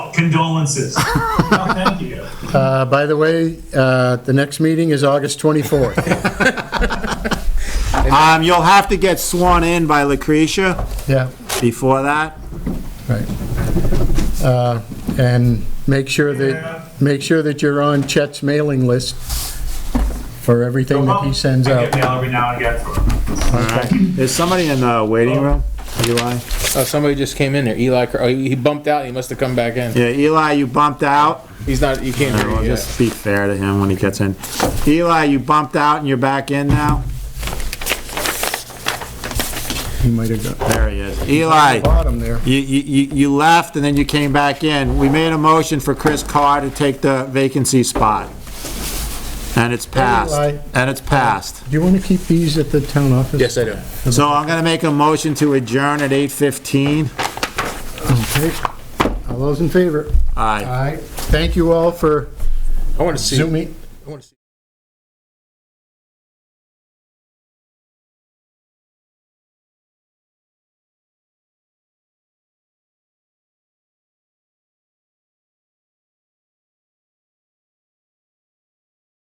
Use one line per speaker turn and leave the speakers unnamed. Condolences. No, thank you.
Uh, By the way, uh, the next meeting is August 24th.
Um, you'll have to get sworn in by Lucretia
Yeah,
before that.
right. Uh, And make sure
Yeah.
that, make sure that you're on Chet's mailing list for everything that he sends
I
out.
get mail every now and again.
Is somebody in the waiting room? Eli?
Oh, somebody just came in there. Eli, Cr- oh, he he bumped out. He must have come back in.
Yeah, Eli, you bumped out.
He's not. You can't hear
We'll
you yet.
just be fair to him when he gets in. Eli, you bumped out and you're back in now?
He might have got
There he is. Eli,
bottom there.
you, you, you- you left and then you came back in. We made a motion for Chris Carr to take the vacancy spot. And it's passed.
Eli.
And it's passed.
Do you want to keep these at the town office?
Yes, I do.
So I'm gonna make a motion to adjourn at 8:15.
Okay. All those in favor?
Aye.
Aye. Thank you all for
I want to see.
Zooming.
I want to see.